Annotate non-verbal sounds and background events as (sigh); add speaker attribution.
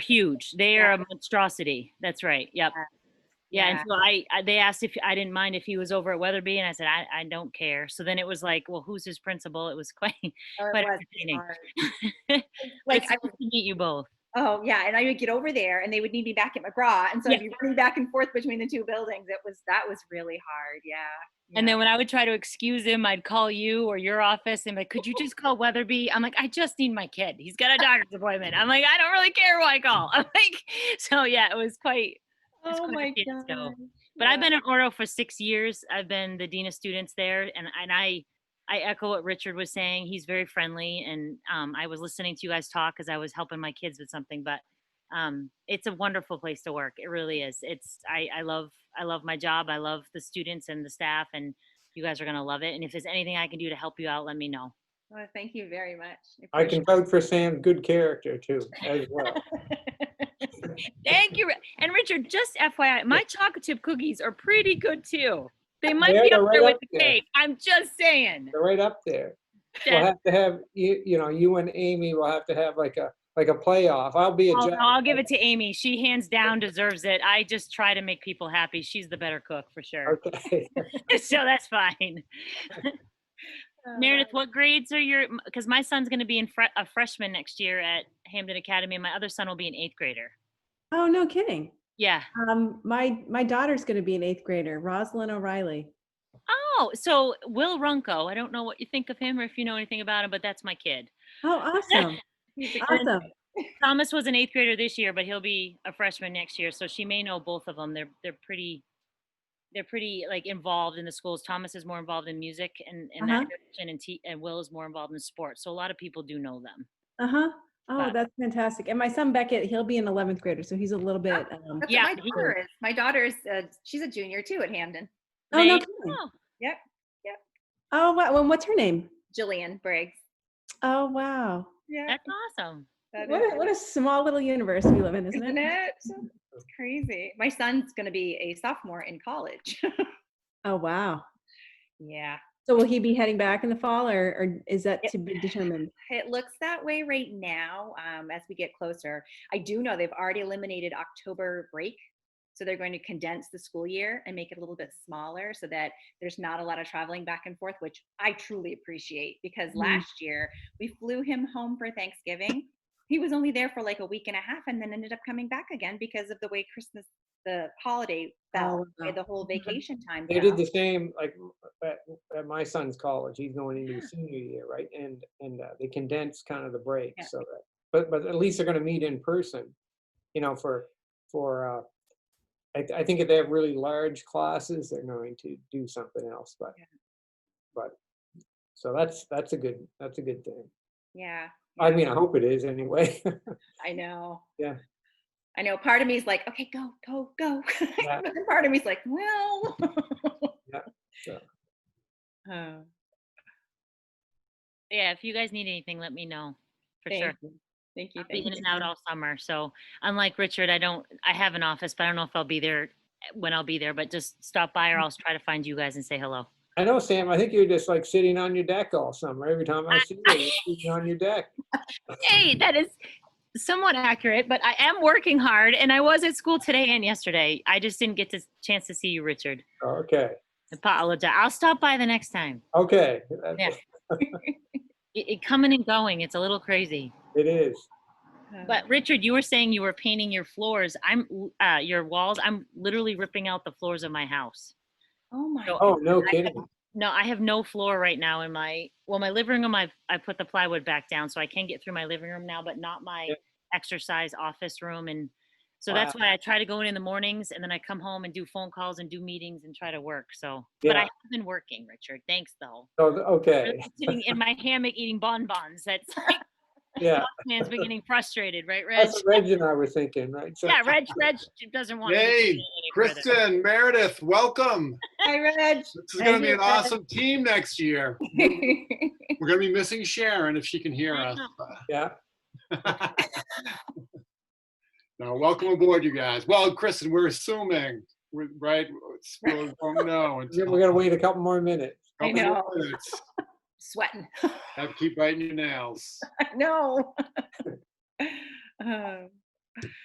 Speaker 1: huge. They are a monstrosity. That's right. Yep. Yeah, and
Speaker 2: Yeah.
Speaker 1: so I, I they asked if I didn't mind if he was over at Weatherby, and I said I, I don't care. So then it was like, well, who's his principal? It was (laughs) quite
Speaker 2: Oh, it
Speaker 1: quite
Speaker 2: was
Speaker 1: entertaining.
Speaker 2: hard.
Speaker 1: (laughs) like
Speaker 2: Like,
Speaker 1: I
Speaker 2: I,
Speaker 1: to meet you both.
Speaker 2: oh, yeah, and I would get over there and they would need me back at McGraw. And so I'd be running back and forth between the two buildings. It was, that was really hard, yeah.
Speaker 1: And
Speaker 2: yeah.
Speaker 1: then when I would try to excuse him, I'd call you or your office and be like, could you just call Weatherby? I'm like, I just need my kid. He's got a doctor's appointment. I'm like, I don't really care who I call. (laughs) I'm like, so yeah, it was quite it's
Speaker 2: Oh
Speaker 1: quite a
Speaker 2: my
Speaker 1: fiasco.
Speaker 2: God.
Speaker 1: But I've
Speaker 2: yeah.
Speaker 1: been at Oro for six years. I've been the dean of students there, and and I I echo what Richard was saying. He's very friendly, and um, I was listening to you guys talk because I was helping my kids with something. But um, it's a wonderful place to work. It really is. It's I I love I love my job. I love the students and the staff, and you guys are gonna love it. And if there's anything I can do to help you out, let me know.
Speaker 2: Well, thank you very much.
Speaker 3: I can vote for Sam, good character too, as well.
Speaker 1: Thank you. Ri- And Richard, just FYI, my chocolate chip cookies are pretty good too. They might
Speaker 3: They're
Speaker 1: be up
Speaker 3: right
Speaker 1: there with
Speaker 3: up
Speaker 1: the
Speaker 3: there.
Speaker 1: cake. I'm just saying.
Speaker 3: They're right up there. We'll
Speaker 1: That's-
Speaker 3: have to have, you, you know, you and Amy will have to have like a, like a playoff. I'll be a
Speaker 1: I'll,
Speaker 3: judge.
Speaker 1: I'll give it to Amy. She hands down deserves it. I just try to make people happy. She's the better cook for sure.
Speaker 3: (laughs) Okay.
Speaker 1: (laughs) so that's fine.
Speaker 2: Oh,
Speaker 1: Meredith, what grades are your? Because my son's going to be in fre- a freshman next year at Hamden Academy, and my other son will be an eighth grader.
Speaker 4: Oh, no kidding.
Speaker 1: Yeah.
Speaker 4: Um, my, my daughter's going to be an eighth grader, Rosalind O'Reilly.
Speaker 1: Oh, so Will Runko. I don't know what you think of him or if you know anything about him, but that's my kid.
Speaker 4: Oh, awesome.
Speaker 2: he's
Speaker 1: uh,
Speaker 2: a-
Speaker 4: Awesome.
Speaker 1: Thomas was an eighth grader this year, but he'll be a freshman next year. So she may know both of them. They're they're pretty they're pretty like involved in the schools. Thomas is more involved in music and, and that
Speaker 4: Uh-huh.
Speaker 1: direction, and, T, and Will is more involved in sports. So a lot of people do know them.
Speaker 4: Uh-huh. Oh,
Speaker 1: But-
Speaker 4: that's fantastic. And my son Beckett, he'll be an 11th grader, so he's a little bit, um,
Speaker 2: That's
Speaker 1: Yeah,
Speaker 2: what my
Speaker 1: he-
Speaker 2: daughter is. My daughter is, uh, she's a junior too at Hamden.
Speaker 4: oh, no
Speaker 1: They-
Speaker 4: kidding.
Speaker 1: oh,
Speaker 4: Oh, wow. Well, what's her name?
Speaker 2: Jillian Briggs.
Speaker 4: Oh, wow.
Speaker 2: Yeah.
Speaker 1: that's awesome.
Speaker 2: that
Speaker 4: What
Speaker 2: is
Speaker 4: a, what a small little universe we live in, isn't
Speaker 2: Isn't
Speaker 4: it?
Speaker 2: it?
Speaker 3: Mm-hmm.
Speaker 2: It's crazy. My son's going to be a sophomore in college. (laughs)
Speaker 4: Oh, wow.
Speaker 2: yeah.
Speaker 4: So will he be heading back in the fall or, or is that
Speaker 2: Yeah.
Speaker 4: to be determined?
Speaker 2: It looks that way right now um, as we get closer. I do know they've already eliminated October break. So they're going to condense the school year and make it a little bit smaller so that there's not a lot of traveling back and forth, which I truly appreciate because
Speaker 4: Mm.
Speaker 2: last year we flew him home for Thanksgiving. He was only there for like a week and a half and then ended up coming back again because of the way Christmas, the holiday fell,
Speaker 4: Oh,
Speaker 2: the whole
Speaker 4: Mhm.
Speaker 2: vacation time.
Speaker 3: Mm-hmm. They did
Speaker 2: fell.
Speaker 3: the same, like, at, at my son's college, he's going into
Speaker 2: (gasps)
Speaker 3: his senior year, right? And, and uh, they condensed kind of the break,
Speaker 2: Yeah.
Speaker 3: so that, but, but at least they're gonna meet in person, you know, for, for, uh, I, I think if they have really large classes, they're going to do something else, but,
Speaker 2: Yeah.
Speaker 3: but, so that's, that's a good, that's a good thing.
Speaker 2: Yeah.
Speaker 3: I
Speaker 2: yeah.
Speaker 3: mean, I hope it is anyway. (laughs)
Speaker 2: I know.
Speaker 3: Yeah.
Speaker 2: I know. Part of me is like, okay, go, go, go. (laughs)
Speaker 3: Yeah.
Speaker 2: But then part of me is like, well. (laughs)
Speaker 3: Yeah, so.
Speaker 2: Oh,
Speaker 1: Yeah, if you guys need anything, let me know for
Speaker 2: thank
Speaker 1: sure.
Speaker 2: you. Thank you.
Speaker 1: I'll be
Speaker 2: thank
Speaker 1: in
Speaker 2: you.
Speaker 1: and out all summer. So unlike Richard, I don't I have an office, but I don't know if I'll be there when I'll be there. But just stop by, or I'll try to find you guys and say hello.
Speaker 3: I know, Sam, I think you're just like sitting on your deck all summer. Every
Speaker 2: (laughs)
Speaker 3: time I see you, you're sitting on your deck.
Speaker 1: Hey, that is somewhat accurate, but I am working hard and I was at school today and yesterday. I just didn't get the chance to see you, Richard.
Speaker 3: Okay,
Speaker 1: Apologize. I'll stop by the next time.
Speaker 3: okay. that's-
Speaker 1: Yeah. It, it coming and going. It's a little crazy.
Speaker 3: It is.
Speaker 2: Uh,
Speaker 1: But Richard, you were saying you were painting your floors. I'm l- uh, your walls. I'm literally ripping out the floors of my house.
Speaker 2: oh my.
Speaker 3: (laughs)
Speaker 1: So-
Speaker 3: Oh, no kidding.
Speaker 1: No, I have no floor right now in my well, my living room. I've I put the plywood back down, so I can get through my living room now, but not my
Speaker 3: Yep.
Speaker 1: exercise office room. And so that's why I try to go in in the mornings, and then I come home and do phone calls and do meetings and try to work. So, but I
Speaker 3: Yeah.
Speaker 1: have been working, Richard. Thanks though.
Speaker 3: Oh,
Speaker 1: Really (laughs)
Speaker 3: okay,
Speaker 1: Sitting in my hammock eating bonbons. That's (laughs) like,
Speaker 3: yeah.
Speaker 1: man's been getting frustrated, right, Reg?
Speaker 3: That's what Reg and I were thinking, right? So-
Speaker 1: Yeah, Reg. Reg doesn't want. me to
Speaker 5: Yay,
Speaker 1: say any further.
Speaker 5: Kristen, Meredith, welcome.
Speaker 2: Hi,
Speaker 3: (laughs)
Speaker 2: Reg. (laughs)
Speaker 5: This is going to be an
Speaker 2: Meredith.
Speaker 5: awesome team next year. We're going to be missing Sharon if she can hear us. (laughs)
Speaker 3: Yeah,
Speaker 5: Now, welcome aboard, you guys. Well, Kristen, we're assuming, we're- right? It's- We won't
Speaker 3: (laughs)
Speaker 5: know
Speaker 3: we're
Speaker 5: until.
Speaker 3: gonna wait a couple more minutes.
Speaker 2: I
Speaker 5: couple
Speaker 2: know.
Speaker 5: minutes.
Speaker 2: Sweating. (laughs)
Speaker 3: (laughs)
Speaker 5: Have to keep biting your nails.
Speaker 2: I know. Um,